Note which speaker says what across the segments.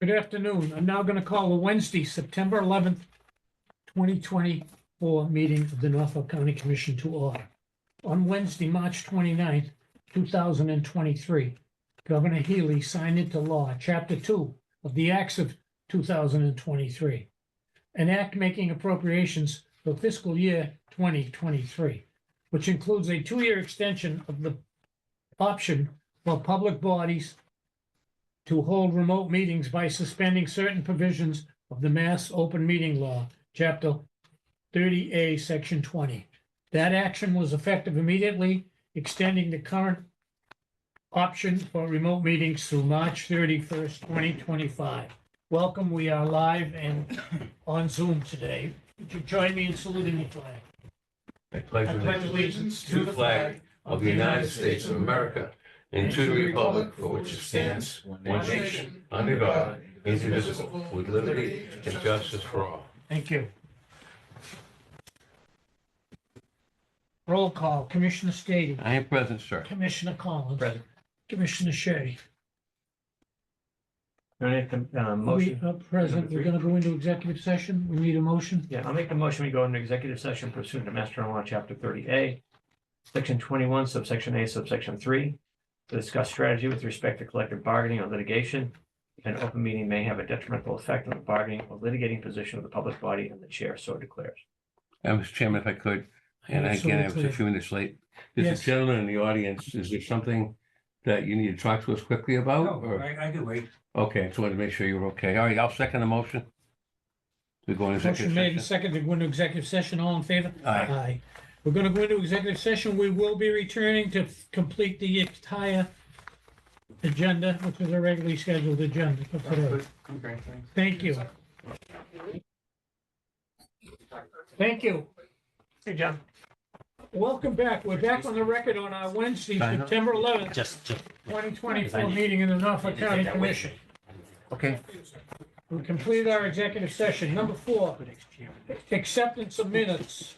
Speaker 1: Good afternoon. I'm now going to call the Wednesday, September 11th, 2024 meeting of the Norfolk County Commission to order. On Wednesday, March 29th, 2023, Governor Healy signed into law Chapter 2 of the Acts of 2023, an act making appropriations for fiscal year 2023, which includes a two-year extension of the option for public bodies to hold remote meetings by suspending certain provisions of the Mass Open Meeting Law, Chapter 30A, Section 20. That action was effective immediately, extending the current option for remote meetings through March 31st, 2025. Welcome, we are live and on Zoom today. Would you join me in saluting the flag?
Speaker 2: I pledge allegiance to the flag of the United States of America and to the republic for which it stands, one nation, under God, indivisible, with liberty and justice for all.
Speaker 1: Thank you. Roll call, Commissioner Stady.
Speaker 2: I am present, sir.
Speaker 1: Commissioner Collins.
Speaker 3: Present.
Speaker 1: Commissioner Shea.
Speaker 3: Can I make a uh,
Speaker 1: Are we,
Speaker 3: motion?
Speaker 1: uh, Present, we're gonna go into executive session. We need a motion.
Speaker 3: Yeah, I'll make a motion. We go into executive session pursuant to Master General Law, Chapter thirty A, Section twenty-one, subsection A, subsection three, to discuss strategy with respect to collective bargaining or litigation. An open meeting may have a detrimental effect on the bargaining or litigating position of the public body and the chair so declares.
Speaker 2: I was Uh, chairman, if I could, and again, I was a few minutes late. There's
Speaker 1: Yes.
Speaker 2: a gentleman in the audience. Is there something that you need to talk to us quickly about?
Speaker 4: No,
Speaker 2: or-
Speaker 4: I, I can wait.
Speaker 2: Okay, just wanted to make sure you were okay. All right, I'll second the motion. We go into
Speaker 1: Motion
Speaker 2: executive
Speaker 1: made and
Speaker 2: session.
Speaker 1: seconded, go into executive session. All in favor?
Speaker 2: Aye.
Speaker 1: Aye. We're gonna go into executive session. We will be returning to f- complete the entire agenda, which is a regularly scheduled agenda for today.
Speaker 4: Okay, thanks.
Speaker 1: Thank you. Thank you.
Speaker 3: Hey, John.
Speaker 1: Welcome back. We're back on the record on our Wednesday,
Speaker 2: Fine.
Speaker 1: September eleventh,
Speaker 5: Just, just.
Speaker 1: twenty twenty-four meeting in the Norfolk County Commission.
Speaker 2: Okay,
Speaker 1: We completed our executive session. Number four, acceptance of minutes.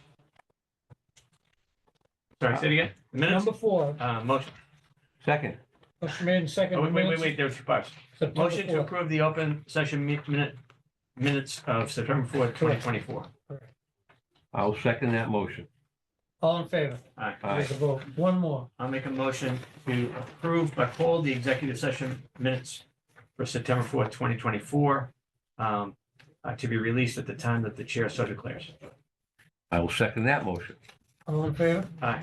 Speaker 3: Sorry, say it again. Minutes,
Speaker 1: Number four,
Speaker 3: uh, motion.
Speaker 2: second.
Speaker 1: motion made and
Speaker 3: Oh,
Speaker 1: seconded.
Speaker 3: wait, wait, wait,
Speaker 1: minutes,
Speaker 3: wait, there's two parts.
Speaker 1: September
Speaker 3: Motion to
Speaker 1: 4th.
Speaker 3: approve the open session mi- minute, minutes of September fourth, twenty twenty-four.
Speaker 2: I'll second that motion.
Speaker 1: All in favor?
Speaker 3: Aye.
Speaker 2: Aye.
Speaker 1: There's a vote. One more.
Speaker 3: I'll make a motion to approve but hold the executive session minutes for September fourth, twenty twenty-four, um, uh, to be released at the time that the chair so declares.
Speaker 2: I will second that motion.
Speaker 1: All in favor?
Speaker 3: Aye.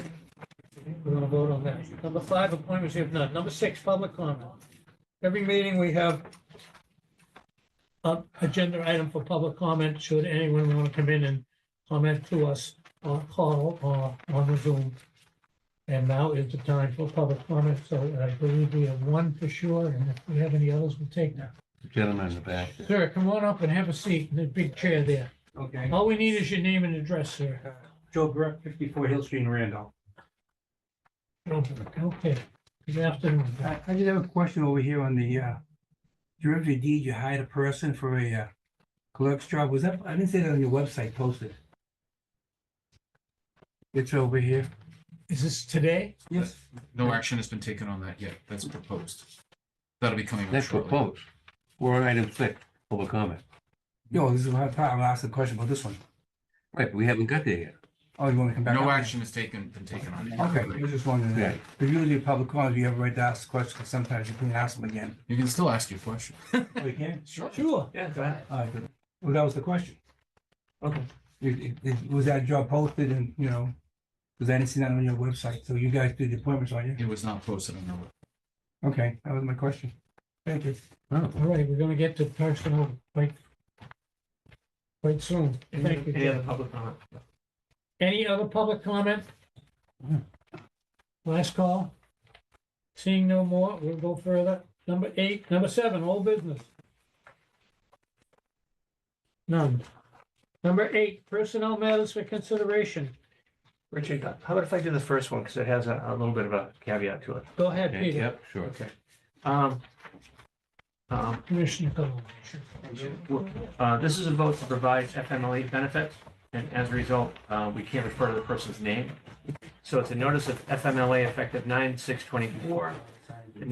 Speaker 1: We're gonna vote on that. Number five, appointments, we have none. Number six, public comment. Every meeting we have a agenda item for public comment, should anyone want to come in and comment to us or call or on the Zoom. And now is the time for public comment, so I believe we have one for sure, and if we have any others, we'll take them.
Speaker 2: Gentleman in the back.
Speaker 1: Sir, come on up and have a seat in the big chair there.
Speaker 4: Okay.
Speaker 1: All we need is your name and address, sir.
Speaker 4: Uh, Joe Burke, fifty-four Hill Street in Randolph.
Speaker 1: Okay, good afternoon.
Speaker 4: I, I just have a question over here on the, uh, derivative deed, you hired a person for a, uh, clerk's job, was that, I didn't see that on your website posted. It's over here.
Speaker 1: Is this today?
Speaker 4: Yes.
Speaker 6: No action has been taken on that yet. That's proposed. That'll be coming up
Speaker 2: That's
Speaker 6: shortly.
Speaker 2: proposed. We're on item six, public comment.
Speaker 4: No, this is what I thought, I'll ask a question about this one.
Speaker 2: Right, we haven't got there yet.
Speaker 4: Oh, you want me to come back? up
Speaker 6: No
Speaker 4: there?
Speaker 6: action has taken, been taken on it.
Speaker 4: Okay, I was just wondering,
Speaker 2: Yeah.
Speaker 4: that. but usually in public comments, you have a right to ask questions, sometimes you can ask them again.
Speaker 6: You can still ask your question.
Speaker 4: Oh, you can?
Speaker 6: Sure.
Speaker 1: Sure.
Speaker 3: Yeah, go ahead.
Speaker 4: All right, good. Well, that was the question.
Speaker 3: Okay.
Speaker 4: It, it- it- was that job posted and, you know, because I didn't see that on your website, so you guys did the appointments on you?
Speaker 6: It was not posted on the web.
Speaker 4: Okay, that was my question. Thank you.
Speaker 1: All right, we're gonna get to personnel quite, quite soon. Thank you.
Speaker 3: Any other
Speaker 1: Jeff.
Speaker 3: public comment?
Speaker 1: Any other public comment? Last call. Seeing no more, we'll go further. Number eight, number seven, all business. None. Number eight, personnel matters for consideration.
Speaker 3: Richard, how about if I do the first one, because it has a, a little bit of a caveat to it?
Speaker 1: Go ahead,
Speaker 2: Okay,
Speaker 1: Peter.
Speaker 2: Yep, sure.
Speaker 3: Okay. Um, um,
Speaker 1: Commissioner Cullen.
Speaker 3: Uh, This is a vote to provide FMLA benefits, E and as a result, uh, we can't refer to the person's name. So it's a notice of FMLA effective nine E six twenty-four